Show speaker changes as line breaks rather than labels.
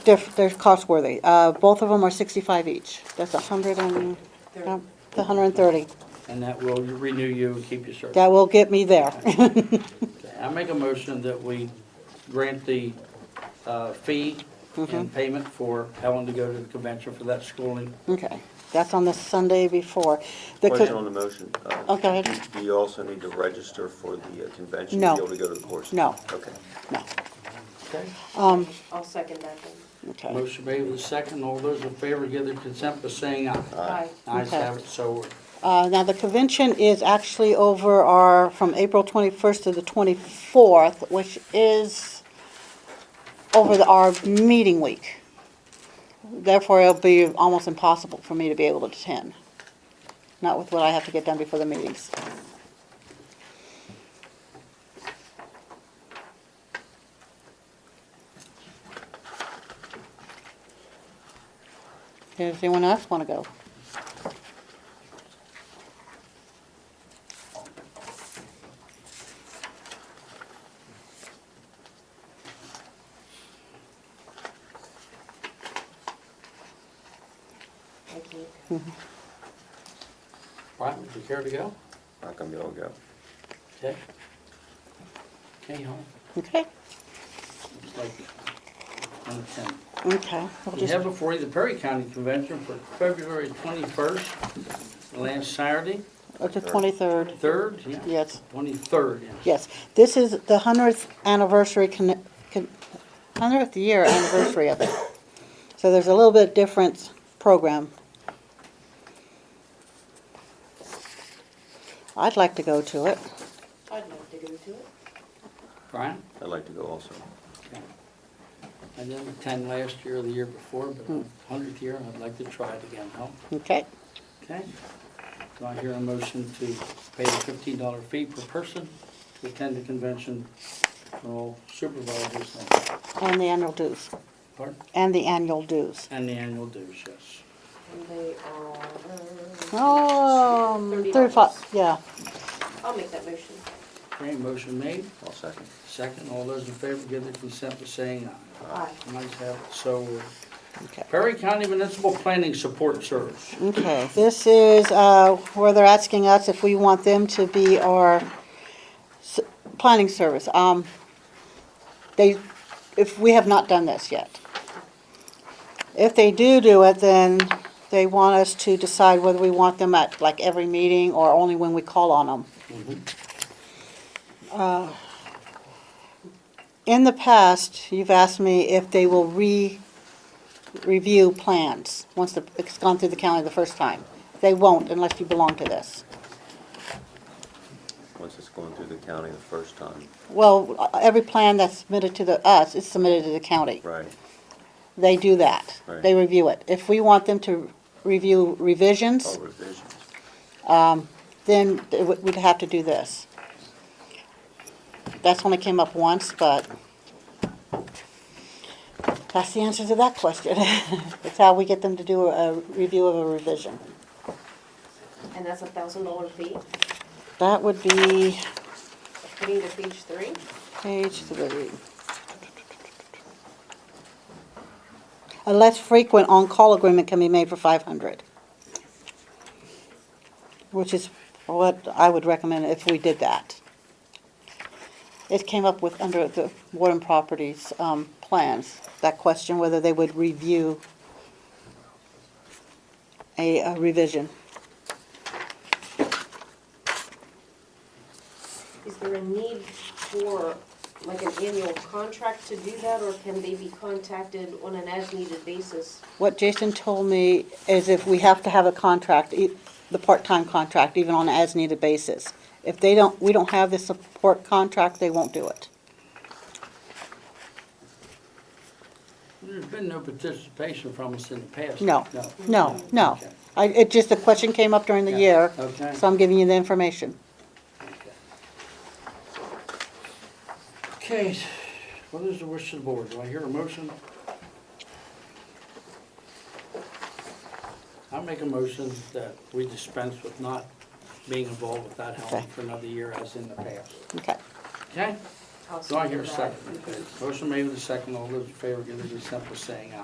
They're, they're cost worthy. Uh, both of them are sixty-five each. That's a hundred and, no, it's a hundred and thirty.
And that will renew you and keep you served.
That will get me there.
Okay, I make a motion that we grant the uh, fee
Mm-hmm.
and payment for Helen to go to the convention for that schooling.
Okay, that's on the Sunday before. The co-
Question on the motion. uh,
Oh, go ahead.
Do you also need to register for the uh, convention?
No.
To be able to go to the course?
No.
Okay.
No,
Okay.
um,
I'll second that then.
okay.
Motion made with a second. All those in favor give their consent by saying aye.
Aye.
Ayes
Okay.
have it, so ordered.
Uh, now the convention is actually over our, from April twenty-first to the twenty-fourth, which is over the, our meeting week. Therefore, it'll be almost impossible for me to be able to attend. Not with what I have to get done before the meetings. Does anyone else want to go?
Thank you.
Brian, would you care to go?
Not gonna be able to go.
Okay. Okay, Helen,
Okay,
looks like number 10.
okay. We'll
We
just-
have before you the Perry County Convention for February 21st, last Saturday,
Oh, The twenty-third,
3rd, yeah?
yes,
23rd, yeah.
yes. This is the hundredth anniversary, hundredth year anniversary of it. So there's a little bit different program. I'd like to go to it.
I'd love to go to it.
Brian?
I'd like to go also.
Okay. I didn't attend last year or the year before, but hundredth year, I'd like to try it again, huh?
Okay,
Okay? Do I hear a motion to pay the fifteen dollar fee per person to attend the convention for all supervisors and,
and the annual dues,
pardon?
and the annual dues.
And the annual dues, yes.
And they are,
Oh,
$30.
Um, thirty-five, yeah.
I'll make that motion.
Okay, motion made,
I'll second.
second, all those in favor give their consent by saying aye.
Aye.
Nice have it, so, ordered.
Okay.
Perry County Municipal Planning Support Service.
Okay, this is uh, where they're asking us if we want them to be our s- planning service. Um, They, if, we have not done this yet. If they do do it, then they want us to decide whether we want them at like every meeting or only when we call on them. Uh, In the past, you've asked me if they will re- review plans, once the, it's gone through the county the first time. They won't unless you belong to this.
Once it's going through the county the first time.
Well, every plan that's submitted to the, us is submitted to the county.
Right.
They do that.
Right.
They review it. If we want them to review
All
revisions,
Oh, revisions.
then it would- we'd have to do this. That's only came up once, but that's the answer to that question. It's how we get them to do a review of a revision.
And that's a thousand dollar fee,
That would be
fee to page three.
Page three. A less frequent on-call agreement can be made for five hundred. Which is what I would recommend if we did that. It came up with, under the Warden Properties, um, plans, that question whether they would review a a revision.
Is there a need for like an annual contract to do that, or can they be contacted on an as-needed basis?
What Jason told me is if we have to have a contract, e- the part-time contract, even on an as-needed basis. If they don't, we don't have the support contract, they won't do it.
There's been no participation from us in the past.
No, no, no. I, it just, the question came up during the
Yeah,
year,
okay.
so I'm giving you the information.
Okay, what is the wish of the board? Do I hear a motion? I make a motion that we dispense with not being involved with that helmet
Okay.
for another year as in the past.
Okay,
Okay?
I'll
Do I hear a
second that.
second? Okay. Motion made with a second. All those in favor, give their consent by saying aye.